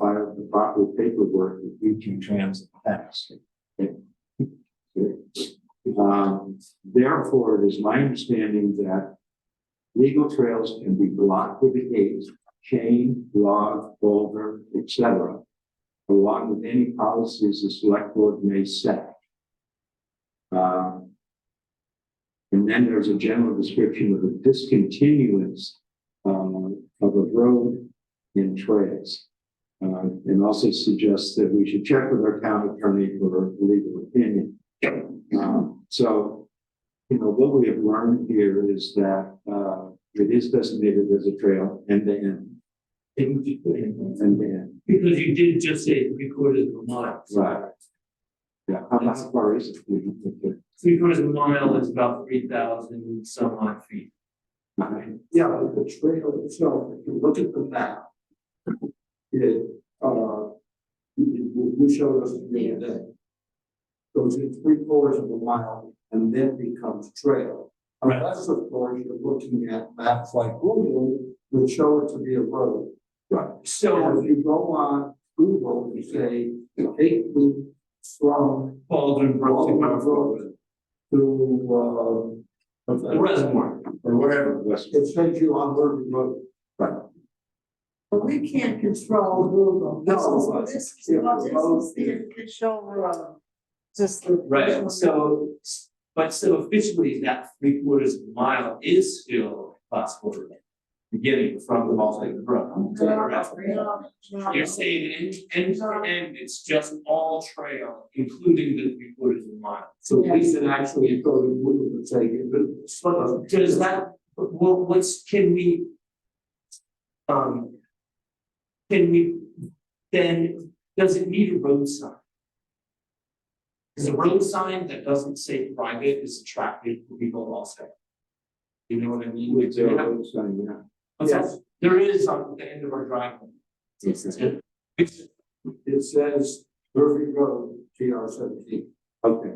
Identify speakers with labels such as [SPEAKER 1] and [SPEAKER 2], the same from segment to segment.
[SPEAKER 1] the proper paperwork that we can transit past. Um, therefore, it is my understanding that legal trails can be blocked with a gate, chain, log, boulder, etc., along with any policies the select board may set. Um, and then there's a general description of the discontinuance um, of a road in trails. Uh, and also suggests that we should check with our town attorney for a legal opinion. Um, so, you know, what we have learned here is that, uh, it is designated as a trail end to end, end to end,
[SPEAKER 2] Because you did just say three quarters of a mile.
[SPEAKER 1] right? Yeah, how how far is it? We don't think it-
[SPEAKER 2] Three quarters of a mile is about three thousand some odd feet.
[SPEAKER 3] Yeah, but the trail itself, if you look at the map. It, uh, you, you- you showed us the other day. Goes in three quarters of a mile and then becomes trail.
[SPEAKER 2] Right.
[SPEAKER 3] Unless, of course, you're looking at maps like Google, which show it to be a road. So
[SPEAKER 2] So
[SPEAKER 3] if you go on Google and say, take me from
[SPEAKER 2] Baldwin Brook to
[SPEAKER 3] Baldwin
[SPEAKER 2] Westport.
[SPEAKER 3] Brook to, uh,
[SPEAKER 2] The reservoir.
[SPEAKER 1] Or whatever, West-
[SPEAKER 3] it sends you on Bourbon Road.
[SPEAKER 4] But we can't control Google. This
[SPEAKER 3] No,
[SPEAKER 4] is, this is,
[SPEAKER 3] it
[SPEAKER 4] well, this
[SPEAKER 3] was-
[SPEAKER 4] is the official road. Just the.
[SPEAKER 2] Right, so, but so officially that three quarters of a mile is still class four. Beginning from the Ball Lake Brook. Correct. You're saying end, end to end, it's just all trail, including the three quarters of a mile.
[SPEAKER 3] So at least it actually goes to Google and say, it was-
[SPEAKER 2] So does that, what, what's, can we? Um. Can we, then, does it need a road sign? Is a road sign that doesn't say private is attractive to people also? You know what I mean?
[SPEAKER 1] It's a road sign, yeah.
[SPEAKER 2] What's that? There is on the end of our driveway. Which,
[SPEAKER 3] it says Bourbon Road, GR seventeen.
[SPEAKER 1] Okay,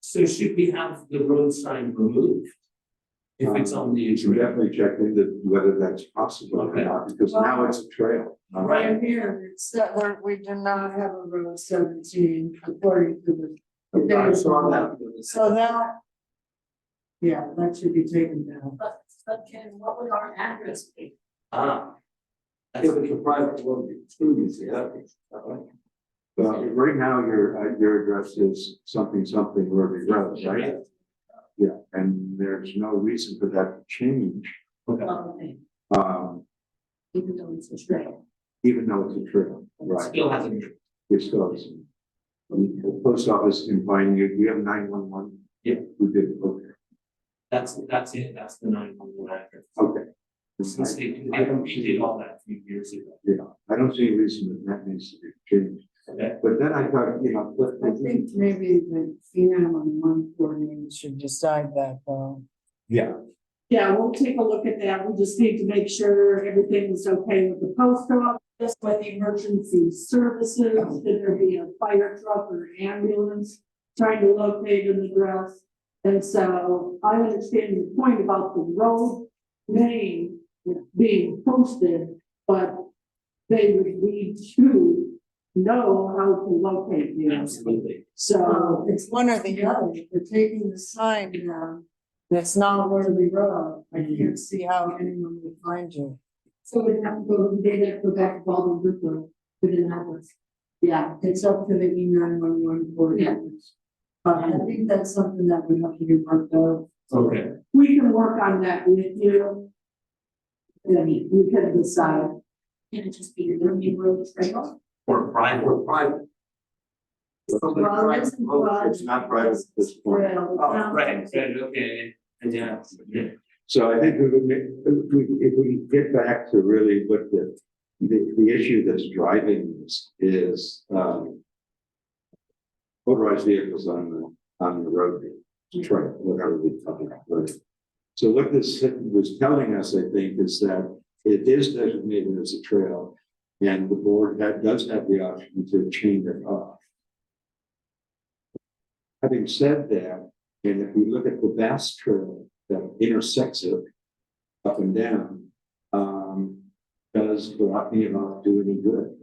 [SPEAKER 2] so should we have the road sign removed? If it's on the
[SPEAKER 1] you should
[SPEAKER 2] trail?
[SPEAKER 1] definitely check into whether that's possible or
[SPEAKER 2] Okay.
[SPEAKER 1] not, because now it's a trail. not-
[SPEAKER 4] Right here, it's that there, we do not have a road seventeen according to the.
[SPEAKER 3] I saw that.
[SPEAKER 4] So that. Yeah, that should be taken down.
[SPEAKER 5] But, but Ken, what would our address be?
[SPEAKER 2] Ah. That's
[SPEAKER 3] If it's a private road, it's two, you see, that makes-
[SPEAKER 1] Well, right now, your, uh, your address is something, something, Ruby Road, right? Yeah, and there's no reason for that to change,
[SPEAKER 2] okay.
[SPEAKER 5] Probably,
[SPEAKER 1] um,
[SPEAKER 5] Even though it's a trail.
[SPEAKER 1] even though it's a trail, right?
[SPEAKER 2] Still has a.
[SPEAKER 1] It's close. um, The post office can find you, you have nine one one?
[SPEAKER 2] Yeah.
[SPEAKER 1] We did, okay,
[SPEAKER 2] That's, that's it, that's the nine one one address.
[SPEAKER 1] okay.
[SPEAKER 2] Since they, they did all that a few years ago.
[SPEAKER 1] I don't see a reason that that needs to be changed,
[SPEAKER 2] Okay.
[SPEAKER 1] but then I thought, you know, but
[SPEAKER 4] I think maybe the FEMA and one coordinator should decide that though.
[SPEAKER 1] Yeah.
[SPEAKER 5] Yeah, we'll take a look at that. We just need to make sure everything's okay with the post office, with the emergency services, should there be a fire truck or ambulance trying to locate an address? And so I understand your point about the road name being posted, but they would need to know how to locate the address.
[SPEAKER 2] Absolutely.
[SPEAKER 5] So
[SPEAKER 4] It's one or the other, if we're taking the sign down, that's not Worthy Road, I can't see how anyone would find you.
[SPEAKER 5] So we'd have to go, they have to go back to Baldwin Brook Road with an atlas.
[SPEAKER 4] Yeah, it's up to the E nine one one coordinators. But I think that's something that we have to do worked out.
[SPEAKER 2] Okay,
[SPEAKER 5] We can work on that with you. I mean, we can decide. Can it just be the Liberty Road Trail?
[SPEAKER 2] or private,
[SPEAKER 3] Or private. Somebody
[SPEAKER 5] Well,
[SPEAKER 3] private
[SPEAKER 5] it's-
[SPEAKER 3] road.
[SPEAKER 5] well,
[SPEAKER 1] It's not private at this point.
[SPEAKER 5] Trail.
[SPEAKER 3] Oh,
[SPEAKER 2] right, good, okay, and yeah, yeah.
[SPEAKER 1] So I think we would make, if we, if we get back to really what the, the, the issue that's driving this is, um. Motorized vehicles on the, on the road, trail, whatever we talk about. road. So what this was telling us, I think, is that it is designated as a trail. And the board that does have the option to change it off. Having said that, and if we look at the Bass Trail that intersects it up and down, um, does blocking it off do any good?